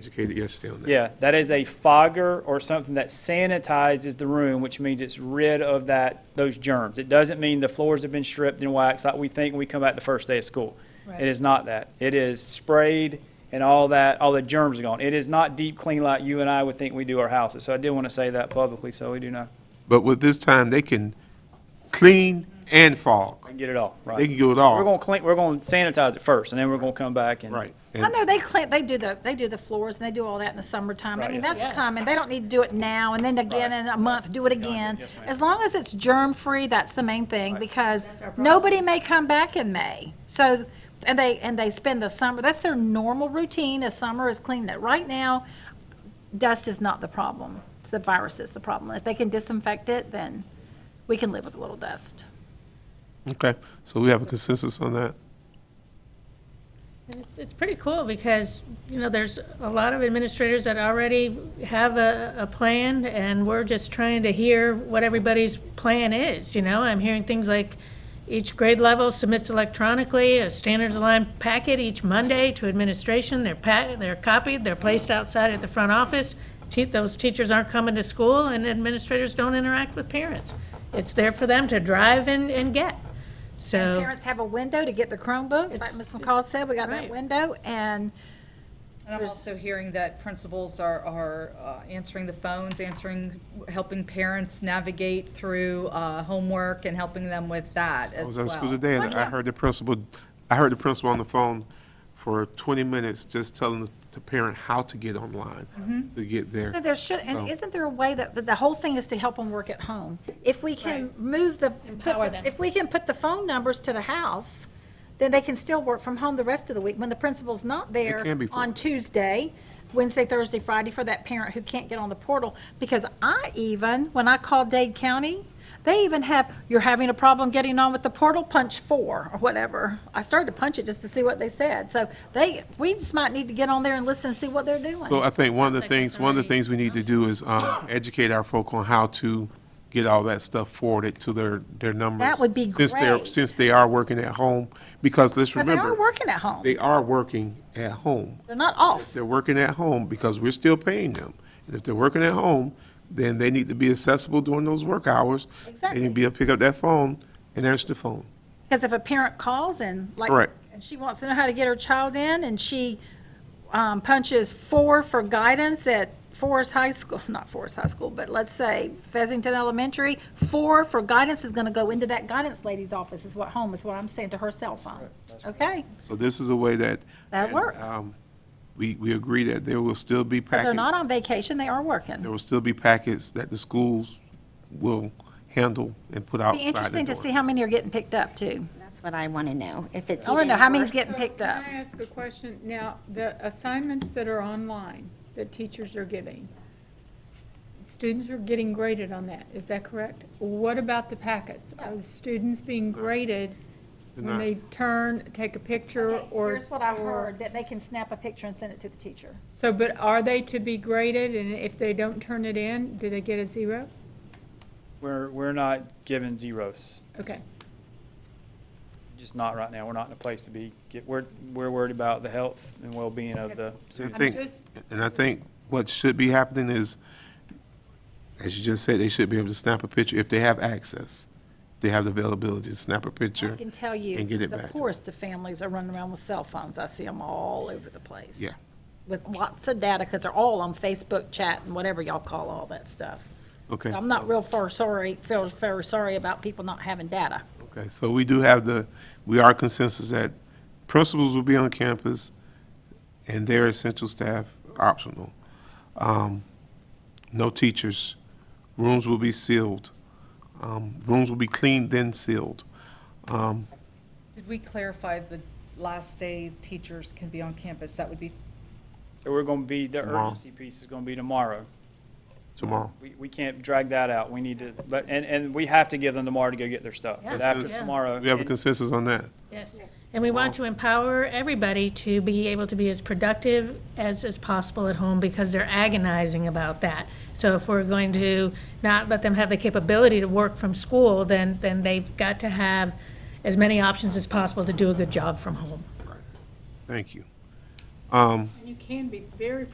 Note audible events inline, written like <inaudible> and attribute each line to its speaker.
Speaker 1: Educated yesterday on that.
Speaker 2: Yeah, that is a fogger or something that sanitizes the room, which means it's rid of that, those germs. It doesn't mean the floors have been stripped and waxed like we think when we come back the first day of school. It is not that. It is sprayed and all that, all the germs are gone. It is not deep clean like you and I would think we do our houses. So I did want to say that publicly, so we do know.
Speaker 1: But with this time, they can clean and fog.
Speaker 2: I Get it all, right.
Speaker 1: They can do it
Speaker 2: We're
Speaker 1: all,
Speaker 2: gonna clean, we're gonna sanitize it first, and then we're gonna come back and.
Speaker 1: right.
Speaker 3: I
Speaker 1: And
Speaker 3: know they clean, they do the, they do the floors and they do all that in the summertime. I
Speaker 2: Right,
Speaker 3: mean,
Speaker 2: yes,
Speaker 3: that's common. They don't need to do it now and then again in a month, do it again.
Speaker 2: yes, ma'am.
Speaker 3: As long as it's germ-free, that's the main thing because nobody may come back in May. So, and they, and they spend the summer, that's their normal routine is summer is cleaning it. Right now, dust is not the problem. It's the virus that's the problem. If they can disinfect it, then we can live with a little dust.
Speaker 1: Okay, so we have a consensus on that?
Speaker 4: It's, it's pretty cool because, you know, there's a lot of administrators that already have a, a plan and we're just trying to hear what everybody's plan is, you know? I'm hearing things like each grade level submits electronically a standards aligned packet each Monday to administration. They're pa, they're copied, they're placed outside at the front office. Te, those teachers aren't coming to school and administrators don't interact with parents. It's there for them to drive and, and get, so.
Speaker 3: Parents have a window to get the Chromebooks, like Ms. McCall said, we got that
Speaker 4: Right.
Speaker 3: window and
Speaker 5: And I'm also hearing that principals are, are uh, answering the phones, answering, helping parents navigate through uh, homework and helping them with that
Speaker 1: I
Speaker 5: as
Speaker 1: was
Speaker 5: well.
Speaker 1: at school today and I heard the principal, I heard the principal on the phone for twenty minutes just telling the- the parent how to get online, to get there.
Speaker 3: So there should,
Speaker 1: So-
Speaker 3: and isn't there a way that, but the whole thing is to help them work at home? If we can move the, put
Speaker 4: Empower
Speaker 3: the-
Speaker 4: them.
Speaker 3: if we can put the phone numbers to the house, then they can still work from home the rest of the week when the principal's not there
Speaker 1: can be for-
Speaker 3: on Tuesday, Wednesday, Thursday, Friday for that parent who can't get on the portal. Because I even, when I called Dade County, they even have, you're having a problem getting on with the portal, punch four or whatever. I started to punch it just to see what they said. So they, we just might need to get on there and listen and see what they're doing.
Speaker 1: So I think one of the things, one of the things we need to do is um, educate our folk on how to get all that stuff forwarded to their, their numbers.
Speaker 3: That would be
Speaker 1: Since they're,
Speaker 3: great.
Speaker 1: since they are working at home, because let's
Speaker 3: Because they
Speaker 1: remember.
Speaker 3: are working at home.
Speaker 1: They are working at home.
Speaker 3: They're not off.
Speaker 1: They're working at home because we're still paying them. And if they're working at home, then they need to be accessible during those work hours. They
Speaker 3: Exactly.
Speaker 1: need to be able to pick up that phone and answer the phone.
Speaker 3: Because if a parent calls and like,
Speaker 1: Right.
Speaker 3: and she wants to know how to get her child in and she um, punches four for guidance at Forest High School, <laughs> not Forest High School, but let's say Fezzington Elementary, four for guidance is going to go into that guidance lady's office is what home is what I'm saying to her cell phone. Okay?
Speaker 1: So this is a way that.
Speaker 3: That'll
Speaker 1: and,
Speaker 3: work.
Speaker 1: um, We, we agree that there will still be
Speaker 3: Because
Speaker 1: packets.
Speaker 3: they're not on vacation, they are working.
Speaker 1: there will still be packets that the schools will handle and put outside
Speaker 3: Be interesting to
Speaker 1: door.
Speaker 3: see how many are getting picked up too.
Speaker 6: That's what I want to know, if it's.
Speaker 3: I want to know
Speaker 6: even
Speaker 3: how many's
Speaker 6: worth-
Speaker 3: getting picked up.
Speaker 7: Can I ask a question? Now, the assignments that are online, that teachers are giving, students are getting graded on that, is that correct? What about the packets? Are the students being graded
Speaker 1: They're
Speaker 7: when they turn, take a picture or?
Speaker 3: Here's what I
Speaker 7: or-
Speaker 3: heard, that they can snap a picture and send it to the teacher.
Speaker 7: So, but are they to be graded, and if they don't turn it in, do they get a zero?
Speaker 2: We're, we're not giving zeros,
Speaker 7: Okay,
Speaker 2: just not right now. We're not in a place to be, get, we're, we're worried about the health and well-being of the
Speaker 1: And I
Speaker 7: I'm
Speaker 1: think,
Speaker 7: just,
Speaker 1: and I think what should be happening is, as you just said, they should be able to snap a picture if they have access. They have the availability to snap a
Speaker 3: I
Speaker 1: picture.
Speaker 3: can tell you,
Speaker 1: and get it
Speaker 3: the
Speaker 1: back.
Speaker 3: poorest of families are running around with cell phones. I see them all over the place.
Speaker 1: Yeah.
Speaker 3: With lots of data, because they're all on Facebook chat and whatever y'all call all that stuff.
Speaker 1: Okay.
Speaker 3: I'm not real far sorry, feel very sorry about people not having data.
Speaker 1: Okay, so we do have the, we are consensus that principals will be on campus and their essential staff optional. Um, No teachers. Rooms will be sealed. Um, Rooms will be cleaned then sealed. Um,
Speaker 5: Did we clarify the last day teachers can be on campus? That would be,
Speaker 2: So we're gonna be, the
Speaker 1: Tomorrow.
Speaker 2: urgency piece is gonna be tomorrow.
Speaker 1: Tomorrow.
Speaker 2: We, we can't drag that out. We need to, but, and, and we have to give them tomorrow to go get their stuff. But after
Speaker 1: Consensus.
Speaker 2: tomorrow.
Speaker 1: We have a
Speaker 2: and-
Speaker 1: consensus on that.
Speaker 4: Yes, and we want to empower everybody to be able to be as productive as is possible at home because they're agonizing about that. So if we're going to not let them have the capability to work from school, then, then they've got to have as many options as possible to do a good job from home.
Speaker 1: Thank you.
Speaker 7: and you can be very